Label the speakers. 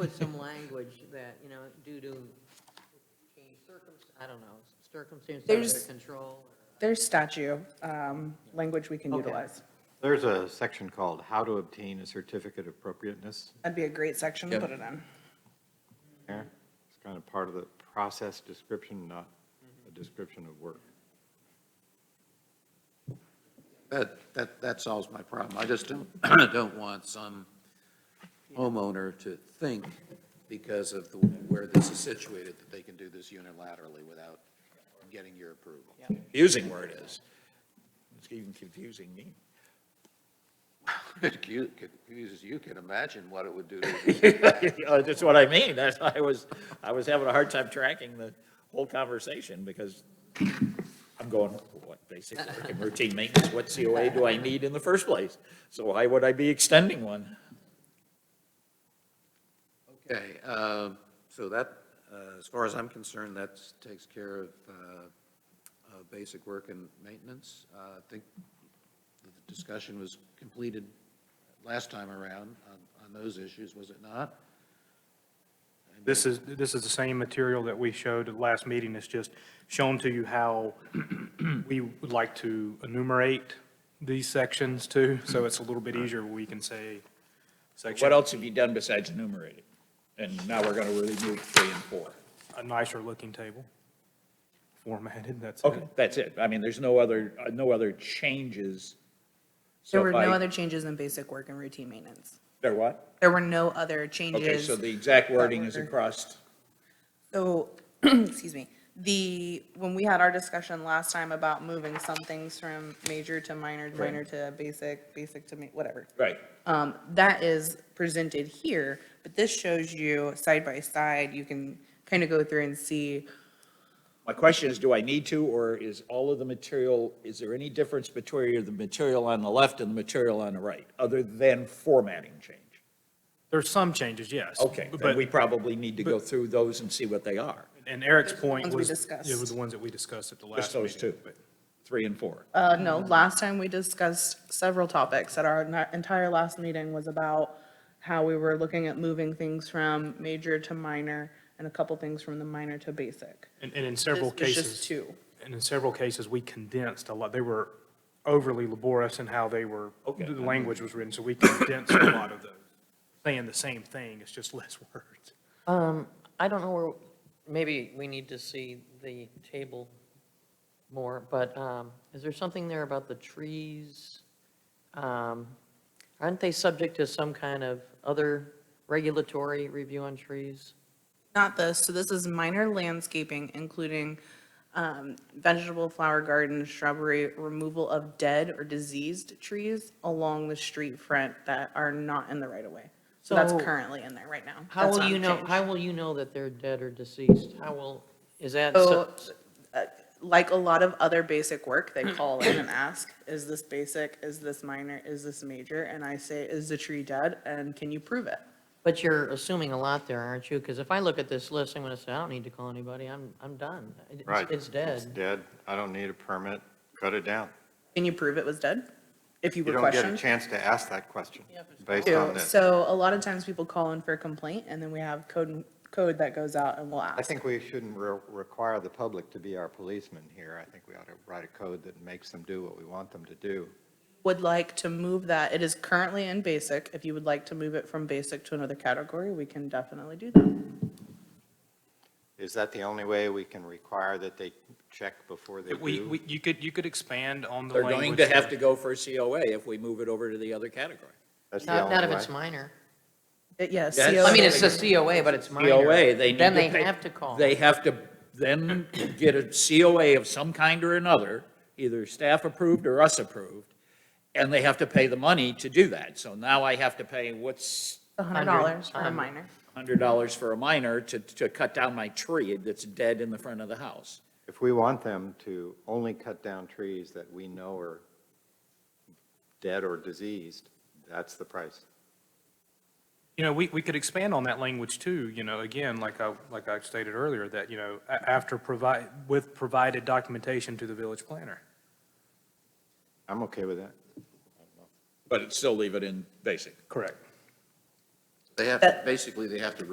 Speaker 1: put some language that, you know, due to change circum, I don't know, circumstances
Speaker 2: There's-
Speaker 1: under control.
Speaker 2: There's statute, um, language we can
Speaker 1: Okay.
Speaker 2: utilize.
Speaker 3: There's a section called How to Obtain a Certificate of Appropriateness.
Speaker 2: That'd be a great section to
Speaker 4: Yep.
Speaker 2: put it in.
Speaker 3: there. It's kind of part of the process description, not a description of work.
Speaker 4: That, that, that solves my problem. I just don't, don't want some homeowner to think because of the- where this is situated, that they can do this unilaterally without getting your approval.
Speaker 5: confusing word is. It's even confusing me.
Speaker 4: It cu- confuses you, can imagine what it would do to
Speaker 5: Uh, That's what I mean. That's, why I was, I was having a hard time tracking the whole conversation because I'm going, what, basic work and routine maintenance, what COA do I need in the first place? So why would I be extending one?
Speaker 4: Okay, um, so that, uh, as far as I'm concerned, that takes care of uh, uh, basic work and maintenance. Uh, I think the discussion was completed last time around on- on those issues, was it not?
Speaker 6: This is, this is the same material that we showed at the last meeting. It's just shown to you how we would like to enumerate these sections too. So it's a little bit easier. We can say
Speaker 5: What
Speaker 6: section,
Speaker 5: else have you done besides enumerating? And now we're gonna remove three and four.
Speaker 6: a nicer looking table formatted, that's
Speaker 5: Okay,
Speaker 6: it.
Speaker 5: that's it. I mean, there's no other, uh, no other changes. So
Speaker 2: There were
Speaker 5: if
Speaker 2: no
Speaker 5: I-
Speaker 2: other changes in basic work and routine maintenance.
Speaker 5: There what?
Speaker 2: There were no other changes.
Speaker 5: Okay, so the exact wording is
Speaker 2: order.
Speaker 5: across,
Speaker 2: So, excuse me, the, when we had our discussion last time about moving some things from major to minor, minor to basic, basic to ma, whatever.
Speaker 5: right.
Speaker 2: Um, that is presented here, but this shows you side by side, you can kind of go through and see.
Speaker 5: My question is, do I need to, or is all of the material, is there any difference between the material on the left and the material on the right, other than formatting change?
Speaker 6: There's some changes, yes.
Speaker 5: Okay, then
Speaker 6: But,
Speaker 5: we probably need to go through those and see what they are,
Speaker 6: and Eric's point
Speaker 2: Ones we
Speaker 6: was,
Speaker 2: discussed.
Speaker 6: it was the ones that we discussed at the last
Speaker 5: just
Speaker 6: meeting.
Speaker 5: those two,
Speaker 6: but-
Speaker 5: three and four.
Speaker 2: Uh, no, last time we discussed several topics at our en- entire last meeting was about how we were looking at moving things from major to minor and a couple things from the minor to basic.
Speaker 6: And, and in several
Speaker 2: This was
Speaker 6: cases.
Speaker 2: just two.
Speaker 6: And in several cases, we condensed a lot. They were overly laborious in how they were,
Speaker 5: Okay.
Speaker 6: the language was written, so we condensed a lot of those, saying the same thing, it's just less words.
Speaker 1: um, I don't know where, maybe we need to see the table more, but um, is there something there about the trees? Um, Aren't they subject to some kind of other regulatory review on trees?
Speaker 2: Not this, so this is minor landscaping, including um, vegetable, flower garden, shrubbery, removal of dead or diseased trees along the street front that are not in the right of way. So that's
Speaker 1: So-
Speaker 2: currently in there right now.
Speaker 1: How
Speaker 2: That's
Speaker 1: will
Speaker 2: not
Speaker 1: you know,
Speaker 2: changed.
Speaker 1: how will you know that they're dead or deceased? How will, is that?
Speaker 2: So,
Speaker 1: so-
Speaker 2: Like a lot of other basic work,
Speaker 1: Mm.
Speaker 2: they call in and ask, is this basic, is this minor, is this major? And I say, is the tree dead and can you prove it?
Speaker 1: But you're assuming a lot there, aren't you? Because if I look at this list, I'm going to say, I don't need to call anybody, I'm, I'm done. It's- It's
Speaker 3: It's
Speaker 1: dead.
Speaker 3: dead. I don't need a permit. Cut it down.
Speaker 2: Can you prove it was dead? If you were
Speaker 3: You don't get a
Speaker 2: questioned?
Speaker 3: chance to ask that question based on
Speaker 2: too.
Speaker 3: this.
Speaker 2: So a lot of times people call in for a complaint and then we have code, code that goes out and we'll
Speaker 3: I
Speaker 2: ask.
Speaker 3: think we shouldn't re- require the public to be our policemen here. I think we ought to write a code that makes them do what we want them to do.
Speaker 2: Would like to move that, it is currently in basic. If you would like to move it from basic to another category, we can definitely do that.
Speaker 3: Is that the only way we can require that they check before they
Speaker 6: We,
Speaker 3: do?
Speaker 6: we, you could, you could expand on the
Speaker 5: They're
Speaker 6: language.
Speaker 5: going to have to go for a COA if we move it over to the other category.
Speaker 3: That's the
Speaker 1: Not,
Speaker 3: only
Speaker 1: not if
Speaker 3: way?
Speaker 1: it's minor.
Speaker 2: It- Yes.
Speaker 5: Yes.
Speaker 2: CO
Speaker 1: I mean, it's a COA, but it's minor.
Speaker 5: COA, they need to
Speaker 1: Then they
Speaker 5: pay-
Speaker 1: have to call.
Speaker 5: They have to then get a COA of some kind or another, either staff approved or us approved, and they have to pay the money to do that. So now I have to pay, what's
Speaker 2: a hundred dollars for
Speaker 1: um,
Speaker 2: a minor.
Speaker 5: hundred dollars for a minor to, to cut down my tree that's dead in the front of the house.
Speaker 3: If we want them to only cut down trees that we know are dead or diseased, that's the price.
Speaker 6: You know, we, we could expand on that language too, you know, again, like I, like I stated earlier, that, you know, a- after provide, with provided documentation to the village planner.
Speaker 3: I'm okay with that.
Speaker 5: But still leave it in basic.
Speaker 6: Correct.
Speaker 4: They have,
Speaker 2: That-
Speaker 4: basically, they have to